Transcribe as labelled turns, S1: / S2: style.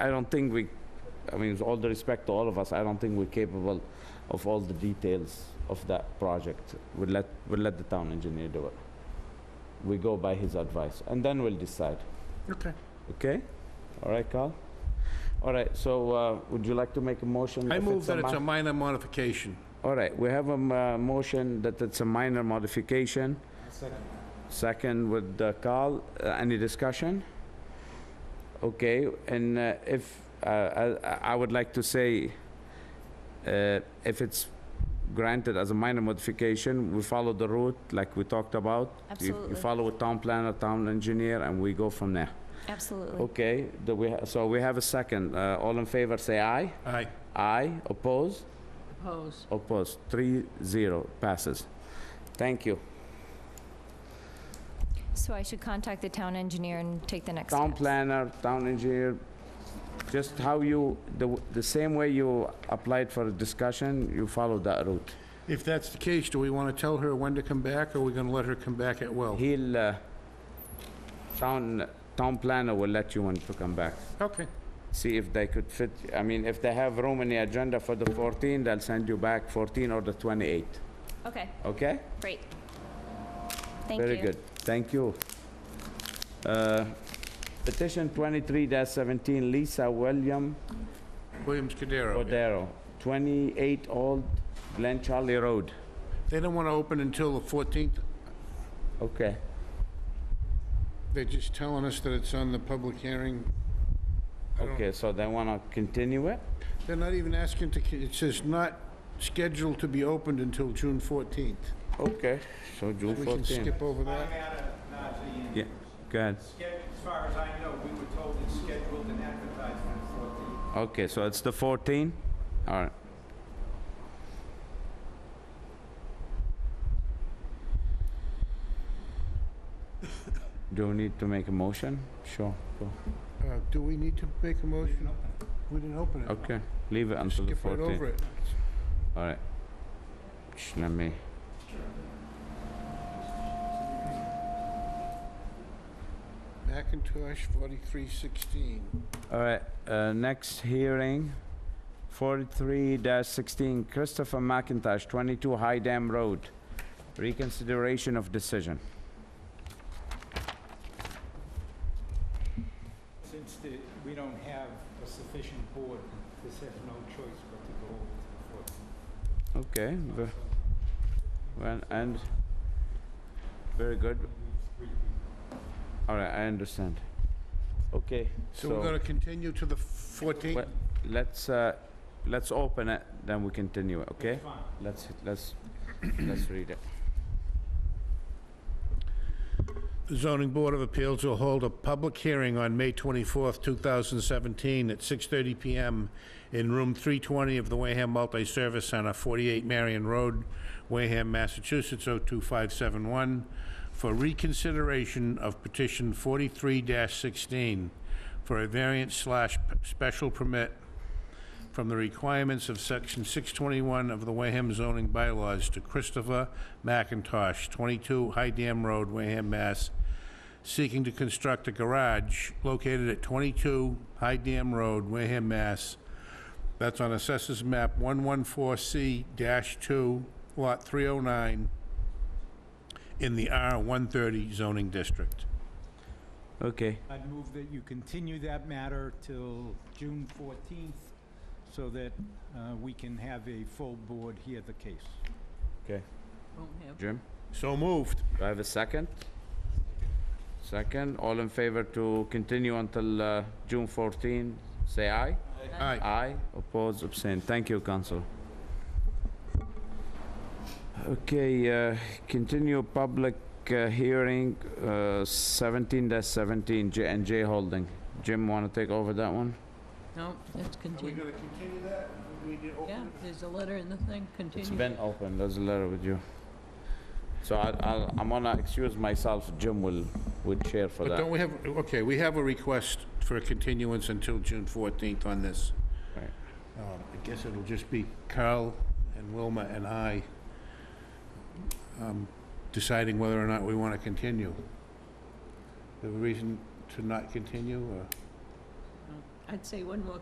S1: I don't think we, I mean, with all the respect to all of us, I don't think we're capable of all the details of that project. We'll let, we'll let the town engineer do it. We go by his advice, and then we'll decide.
S2: Okay.
S1: Okay? All right, Carl? All right, so uh, would you like to make a motion?
S2: I
S1: if
S2: move that it's
S1: mi-
S2: a minor modification.
S1: All right, we have a m- uh, motion that it's a minor modification. Second with uh, Carl, Uh, any discussion? Okay, and uh, if, uh, I I- I would like to say, uh, if it's granted as a minor modification, we follow the route like we talked about. You- You
S3: Absolutely.
S1: follow with town planner, town engineer, and we go from there.
S3: Absolutely.
S1: Okay, do we ha- so we have a second. Uh, All in favor, say aye.
S2: Aye.
S1: Aye, oppose?
S4: Oppose.
S1: Opposed, three zero, passes. Thank you.
S3: So I should contact the town engineer and take the next
S1: Town
S3: steps?
S1: planner, town engineer, just how you, the, w- the same way you applied for a discussion, you follow that route.
S2: If that's the case, do we want to tell her when to come back, or are we going to let her come back at will?
S1: He'll, uh, town, town planner will let you when to come back.
S2: Okay.
S1: See if they could fit, I mean, if they have room in the agenda for the 14, they'll send you back 14 or the 28,
S3: Okay,
S1: okay?
S3: great. Thank you.
S1: Very good, thank you. Uh, Petition 23-17 Lisa William
S2: Williams Cordero.
S1: Cordero, 28 Old Glen Charlie Road.
S2: They don't want to open until the 14th.
S1: Okay,
S2: They're just telling us that it's on the public hearing. I don't-
S1: okay, so they want to continue it?
S2: They're not even asking to, it says not scheduled to be opened until June 14th.
S1: Okay, so June
S2: We can
S1: 14.
S2: skip over
S5: I
S2: that.
S5: had a, Najee,
S1: Yeah, go ahead.
S5: as far as I know, we were told it's scheduled and advertised for the 14th.
S1: Okay, so it's the 14? All right. Do we need to make a motion? Sure, go.
S2: Uh, Do we need to make a motion? We didn't open it.
S1: okay, leave it Oh, until the
S2: Skip right
S1: 14.
S2: over it.
S1: All right. Just let me.
S2: Macintosh 4316.
S1: All right, uh, next hearing, 43-16 Christopher McIntosh, 22 High Dam Road, reconsideration of decision.
S5: Since the, we don't have a sufficient board, this has no choice but to go over to
S1: Okay,
S5: the 14th.
S1: ve- well, and, very good. All right, I understand. Okay,
S2: So we're
S1: so
S2: gonna continue to the 14th?
S1: What- let's, uh, let's open it, then we continue, it, okay?
S5: Fine.
S1: Let's, let's, let's read it.
S2: The Zoning Board of Appeals will hold a public hearing on May 24th, 2017, at 6:30 PM in Room 320 of the Wareham Multi-Service Center, 48 Marion Road, Wareham, Massachusetts, 02571, for reconsideration of petition 43-16 for a variance slash p- special permit from the requirements of Section 621 of the Wareham zoning bylaws to Christopher McIntosh, 22 High Dam Road, Wareham, Mass., seeking to construct a garage located at 22 High Dam Road, Wareham, Mass. That's on Assessors Map 114C-2, Lot 309, in the R130 zoning district.
S1: Okay.
S5: I'd move that you continue that matter till June 14th so that uh, we can have a full board hear the case.
S4: Won't have.
S1: Jim,
S2: So moved.
S1: do I have a second? Second, all in favor to continue until uh, June 14, say aye.
S2: Aye.
S1: Aye, oppose, abstain. Thank you, council. Okay, uh, continue public uh, hearing uh, 17-17, J and J Holding. Jim, want to take over that one?
S4: No, it's continued.
S2: continue that? We need to open
S4: Yeah, there's a letter in the thing,
S1: It's
S4: continue.
S1: been open, there's a letter with you. So I- I'll- I'm gonna excuse myself, Jim will, would share for
S2: But
S1: that.
S2: don't we have, okay, we have a request for a continuance until June 14th on this.
S1: Right.
S2: Um, I guess it'll just be Carl and Wilma and I um, deciding whether or not we want to continue. The reason to not continue, or?
S4: No, I'd say one more